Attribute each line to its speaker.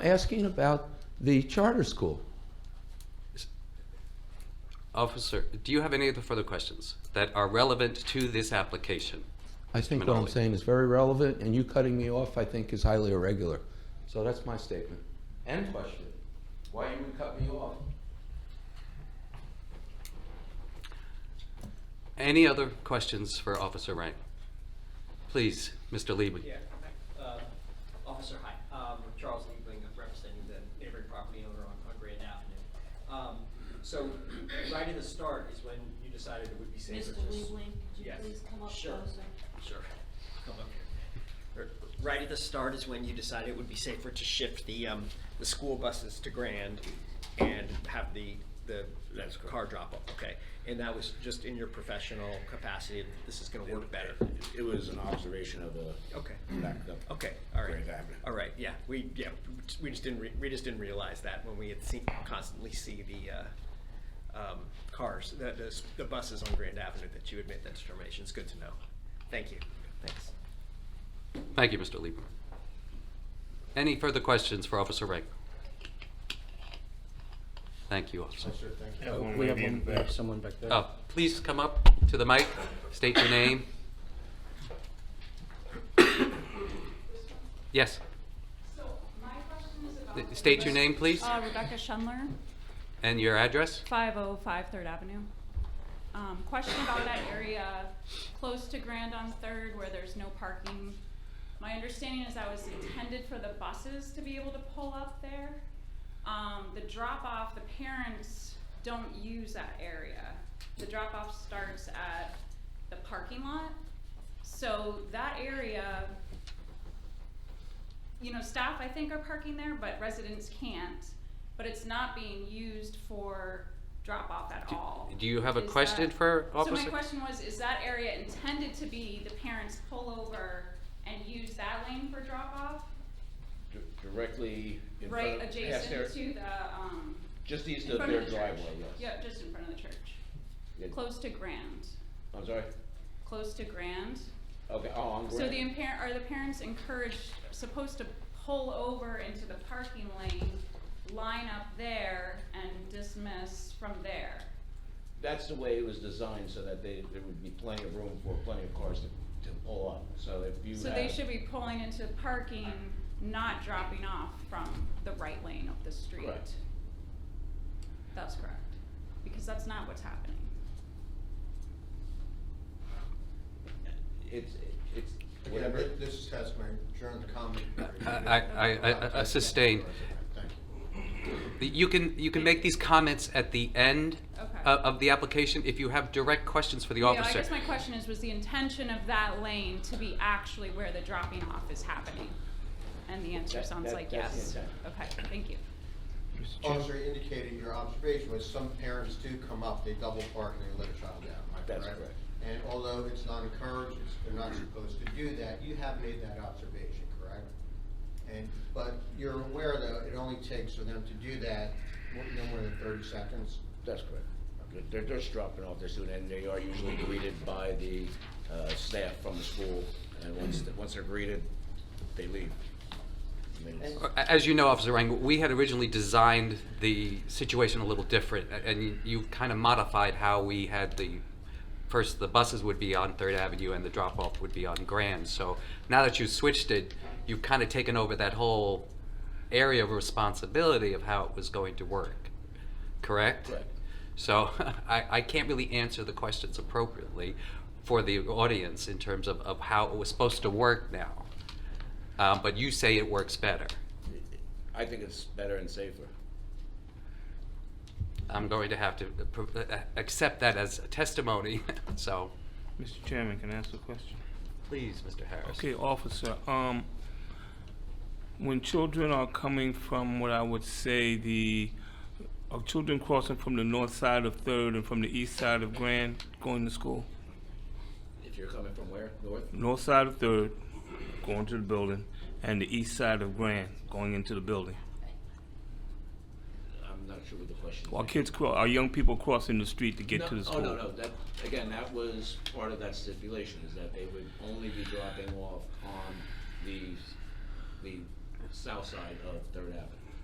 Speaker 1: asking about the charter school.
Speaker 2: Officer, do you have any other further questions that are relevant to this application?
Speaker 1: I think what I'm
Speaker 2: Minali.
Speaker 1: saying is very relevant, and you cutting me off, I think, is highly irregular. So that's my statement. And question. Why you would cut me off?
Speaker 2: Any other questions for Officer Rank? Please, Mr. Liebling.
Speaker 3: Yeah, uh, Officer, hi, um, Charles Liebling, I'm representing the neighboring property owner on, on Grand Avenue. Um, so, right at the start is when you decided it would be safer
Speaker 4: Mr.
Speaker 3: to. s-
Speaker 4: Liebling, could you
Speaker 3: Yes.
Speaker 4: please come up
Speaker 3: Sure.
Speaker 4: closer?
Speaker 3: Sure, come up here. R- Right at the start is when you decided it would be safer to shift the, um, the school buses to Grand and have the, the car drop off, okay? And that was just in your professional capacity, this is gonna work better.
Speaker 5: It was an observation of a.
Speaker 3: Okay.
Speaker 5: backed up
Speaker 3: Okay, all right,
Speaker 5: Grand Avenue.
Speaker 3: all right, yeah, we, yeah, we just- we just didn't, re- we just didn't realize that when we had seen, constantly see the, uh, um, cars, the, the, s- the buses on Grand Avenue, that you had made that determination, it's good to know. Thank you, thanks.
Speaker 2: Thank you, Mr. Liebling. Any further questions for Officer Rank? Thank you, Officer.
Speaker 6: Oh, We have one, we have someone back there.
Speaker 2: Oh, please come up to the mic, state your name. Yes,
Speaker 7: So my question is about.
Speaker 2: Uh, state your name, please,
Speaker 7: Uh, Rebecca Schundler,
Speaker 2: and your address.
Speaker 7: five oh five Third Avenue. Um, question about that area close to Grand on Third where there's no parking. My understanding is that was intended for the buses to be able to pull up there. Um, the drop off, the parents don't use that area. The drop off starts at the parking lot. So that area you know, staff I think are parking there, but residents can't. But it's not being used for drop off at all.
Speaker 2: do you have a
Speaker 7: Is
Speaker 2: question
Speaker 7: that-
Speaker 2: for
Speaker 7: So
Speaker 2: Officer-
Speaker 7: my question was, is that area intended to be the parents pull over and use that lane for drop off?
Speaker 5: Di- Directly in front.
Speaker 7: Right
Speaker 5: of- past their-
Speaker 7: adjacent to the, um,
Speaker 5: Just
Speaker 7: in
Speaker 5: east of
Speaker 7: front
Speaker 5: their
Speaker 7: of the church.
Speaker 5: driveway, yes.
Speaker 7: Yeah, just in front of the church,
Speaker 5: Yeah.
Speaker 7: close to Grand,
Speaker 5: I'm sorry?
Speaker 7: close to Grand.
Speaker 5: Okay, oh, on
Speaker 7: So the
Speaker 5: Grand.
Speaker 7: impar- are the parents encouraged, supposed to pull over into the parking lane, line up there and dismiss from there?
Speaker 5: That's the way it was designed, so that they, there would be plenty of room for plenty of cars to, to pull up. So if you
Speaker 7: So they
Speaker 5: have,
Speaker 7: should be pulling into parking, not dropping off from the right lane of the street.
Speaker 5: Correct.
Speaker 7: That's correct, because that's not what's happening.
Speaker 5: it's, it's,
Speaker 8: Again,
Speaker 5: whatever.
Speaker 8: thi- this has my adjourned comment.
Speaker 2: I, I, I- I sustain.
Speaker 8: Thank you.
Speaker 2: You can, you can make these comments at the end
Speaker 7: Okay.
Speaker 2: uh, of the application if you have direct questions for the
Speaker 7: Yeah, I
Speaker 2: officer.
Speaker 7: guess my question is, was the intention of that lane to be actually where the dropping off is happening? And the answer
Speaker 5: That-
Speaker 7: sounds
Speaker 5: that-
Speaker 7: like
Speaker 5: that's the
Speaker 7: yes.
Speaker 5: intent.
Speaker 7: Okay, thank you.
Speaker 8: Officer indicated your observation was some parents do come up, they double park and they let a child down, am I
Speaker 5: That's
Speaker 8: correct?
Speaker 5: correct.
Speaker 8: And although it's not encouraged, it's- they're not supposed to do that, you have made that observation, correct? And, but you're aware though, it only takes for them to do that, mo- no more than thirty seconds.
Speaker 5: That's correct. They're- They're, they're just dropping off their student, and they are usually greeted by the, uh, staff from the school, and once, once they're greeted, they leave. I mean, it's-
Speaker 2: As you know, Officer Rang, we had originally designed the situation a little different, a- and you- you kind of modified how we had the, first, the buses would be on Third Avenue and the drop-off would be on Grand. So now that you switched it, you've kind of taken over that whole area of responsibility of how it was going to work, correct?
Speaker 5: Correct.
Speaker 2: So I, I can't really answer the questions appropriately for the audience in terms of, of how it was supposed to work now. Um, but you say it works better.
Speaker 5: I think it's better and safer.
Speaker 2: I'm going to have to uh, pro- uh, accept that as testimony, so.
Speaker 6: Mr. Chairman, can I ask a question?
Speaker 2: Please, Mr. Harris.
Speaker 6: Okay, officer, um, when children are coming from what I would say the, are children crossing from the north side of Third and from the east side of Grand going to school?
Speaker 5: If you're coming from where, north?
Speaker 6: North side of Third, going to the building, and the east side of Grand, going into the building.
Speaker 5: I'm not sure what the question is.
Speaker 6: Are kids, cro- are young people crossing the street to
Speaker 5: No,
Speaker 6: get to the school?
Speaker 5: Oh, no, no, that, again, that was part of that stipulation, is that they would only be dropping off on the, the south side of Third Avenue.